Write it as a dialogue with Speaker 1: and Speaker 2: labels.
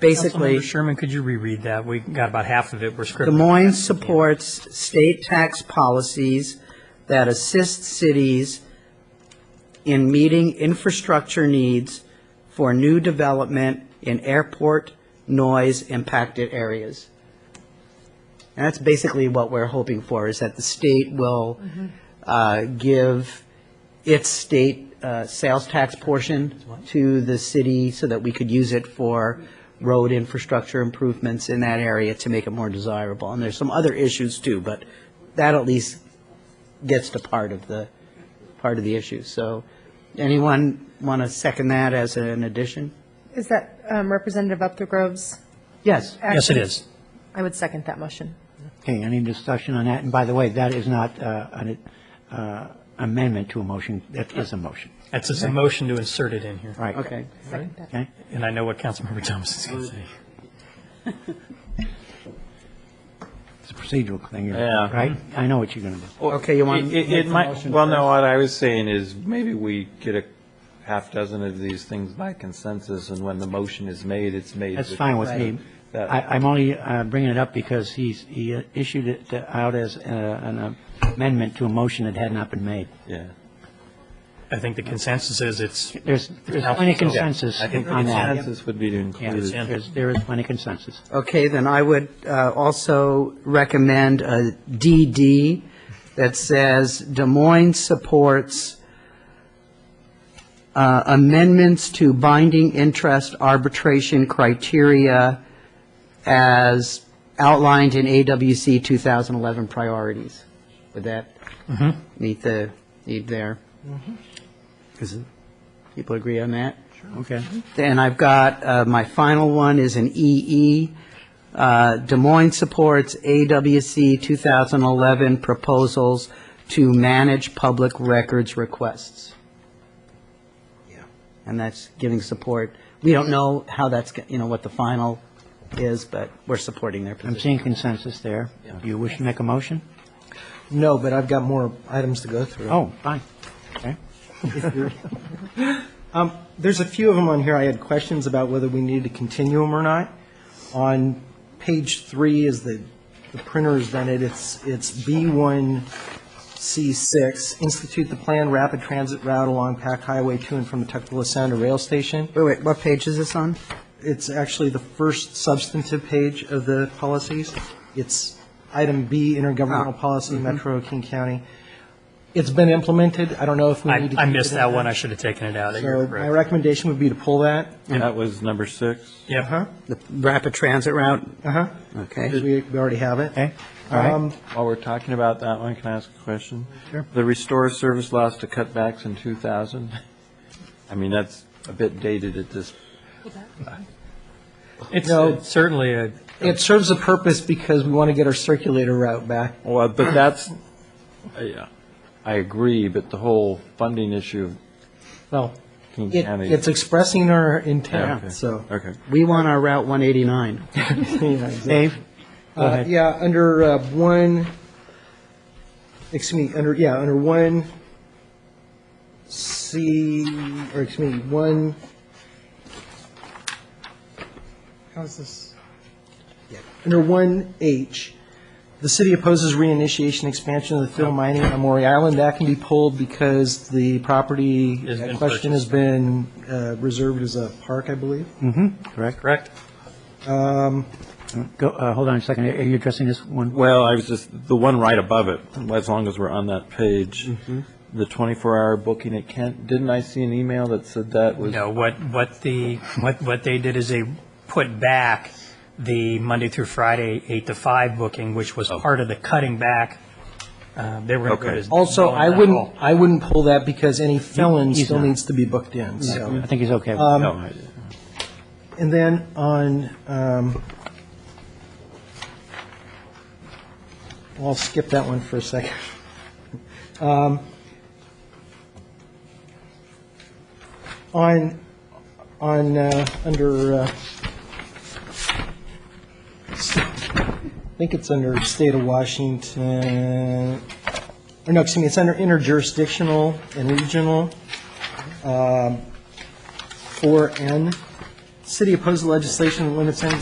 Speaker 1: basically,
Speaker 2: Councilmember Sherman, could you reread that? We got about half of it, we're
Speaker 1: Des
Speaker 2: scribbling.
Speaker 1: Moines supports state tax policies that assist cities in meeting infrastructure needs for new development in airport noise-impacted areas. And that's basically what we're hoping for, is that the state will uh, give its state uh, sales tax portion to the city so that we could use it for road infrastructure improvements in that area to make it more desirable. And there's some other issues too, but that at least gets to part of the, part of the issue. So anyone want to second that as an addition?
Speaker 3: Is that um, Representative Upthrove's?
Speaker 1: Yes.
Speaker 2: Yes, it is.
Speaker 3: I would second that motion.
Speaker 4: Okay, any discussion on that? And by the way, that is not uh, an uh, amendment to a motion, that is a motion,
Speaker 2: That's just a motion to insert it in here.
Speaker 4: right?
Speaker 1: Okay.
Speaker 3: Second that.
Speaker 4: Okay,
Speaker 2: And I know what Councilmember Thomas is going to say.
Speaker 4: it's a procedural thing, you're-
Speaker 5: Yeah.
Speaker 4: right? I know what you're going to do.
Speaker 1: Okay, you want?
Speaker 5: It- It, it might, well, no, what I was saying is, maybe we get a half dozen of these things by consensus, and when the motion is made, it's made.
Speaker 4: That's fine with me.
Speaker 5: That-
Speaker 4: I- I'm only uh, bringing it up because he's, he uh, issued it uh, out as uh, an amendment to a motion that had not been made.
Speaker 5: Yeah.
Speaker 2: I think the consensus is it's,
Speaker 4: There's there's plenty of consensus
Speaker 5: I think the
Speaker 4: on that.
Speaker 5: consensus would be to
Speaker 4: Yeah,
Speaker 5: include it.
Speaker 4: there's- there is plenty of consensus.
Speaker 1: Okay, then I would uh, also recommend a DD that says Des Moines supports uh, amendments to binding interest arbitration criteria as outlined in AWC 2011 priorities. Would that meet the need there? Is it- People agree on that?
Speaker 4: Okay.
Speaker 1: Then I've got, uh, my final one is an EE. Uh, Des Moines supports AWC 2011 proposals to manage public records requests. And that's giving support. We don't know how that's, go- you know, what the final is, but we're supporting their
Speaker 4: I'm
Speaker 1: position.
Speaker 4: seeing consensus there. Do you wish to make a motion?
Speaker 6: No, but I've got more items to go through.
Speaker 4: Oh, fine. Okay.
Speaker 6: Um, There's a few of them on here I had questions about whether we needed to continue them or not. On page three is the, the printer's done it, it's, it's B1C6, institute the planned rapid transit route along Pack Highway to and from the Tuckahoe Sound to Rail Station.
Speaker 1: Wait, wait, what page is this on?
Speaker 6: It's actually the first substantive page of the policies. It's item B, intergovernmental policy, Metro King County. It's been implemented, I don't know if we
Speaker 2: I
Speaker 6: need to.
Speaker 2: I
Speaker 6: keep
Speaker 2: missed
Speaker 6: it in
Speaker 2: that
Speaker 6: there.
Speaker 2: one, I should have taken it out. You're
Speaker 6: So my
Speaker 2: correct.
Speaker 6: recommendation would be to pull that.
Speaker 5: That was number six.
Speaker 2: Yep.
Speaker 1: The rapid transit route?
Speaker 6: Uh-huh.
Speaker 1: Okay.
Speaker 6: We we already have it.
Speaker 4: Okay, all right.
Speaker 6: Um,
Speaker 5: While we're talking about that one, can I ask a question? Sure. The restore service loss to cutbacks in 2000? I mean, that's a bit dated at this,
Speaker 2: It's
Speaker 6: No.
Speaker 2: it's certainly a,
Speaker 6: It serves a purpose because we want to get our circulator route back.
Speaker 5: well, but that's, I I agree, but the whole funding issue
Speaker 6: Well,
Speaker 5: of King
Speaker 6: it-
Speaker 5: County.
Speaker 6: it's expressing our
Speaker 5: Yeah, okay.
Speaker 6: intent, so.
Speaker 5: Okay.
Speaker 1: We want our Route 189.
Speaker 4: Dave? Go
Speaker 6: Uh,
Speaker 4: ahead.
Speaker 6: Yeah, under uh, one, excuse me, under, yeah, under one C, or excuse me, one, how's this? Yeah, Under one H, the city opposes reinitiation expansion of the fill mining on Maury Island. That can be pulled because the property
Speaker 2: Has been
Speaker 6: at question has been uh, reserved as a park, I believe.
Speaker 4: Correct.
Speaker 2: correct?
Speaker 6: Um,
Speaker 4: Go, uh, hold on a second. Are you addressing this one?
Speaker 5: Well, I was just, the one right above it, as long as we're on that page, the 24-hour booking at Kent, didn't I see an email that said that was?
Speaker 2: No, what, what the, what, what they did is they put back the Monday through Friday, eight to five booking, which was part of the cutting back. Uh, They were
Speaker 5: Okay.
Speaker 2: going to.
Speaker 6: Also, I wouldn't, I wouldn't pull that because any felon
Speaker 4: He's
Speaker 6: still
Speaker 4: not.
Speaker 6: needs to be booked in, so.
Speaker 4: I think he's okay. with
Speaker 6: Um,
Speaker 5: No, I-
Speaker 6: And then on, um, I'll skip that one for a second. Um, On, on, uh, under, uh, I think it's under State of Washington, or no, excuse me, it's under interjurisdictional and regional, um, 4N. City opposed legislation that limits any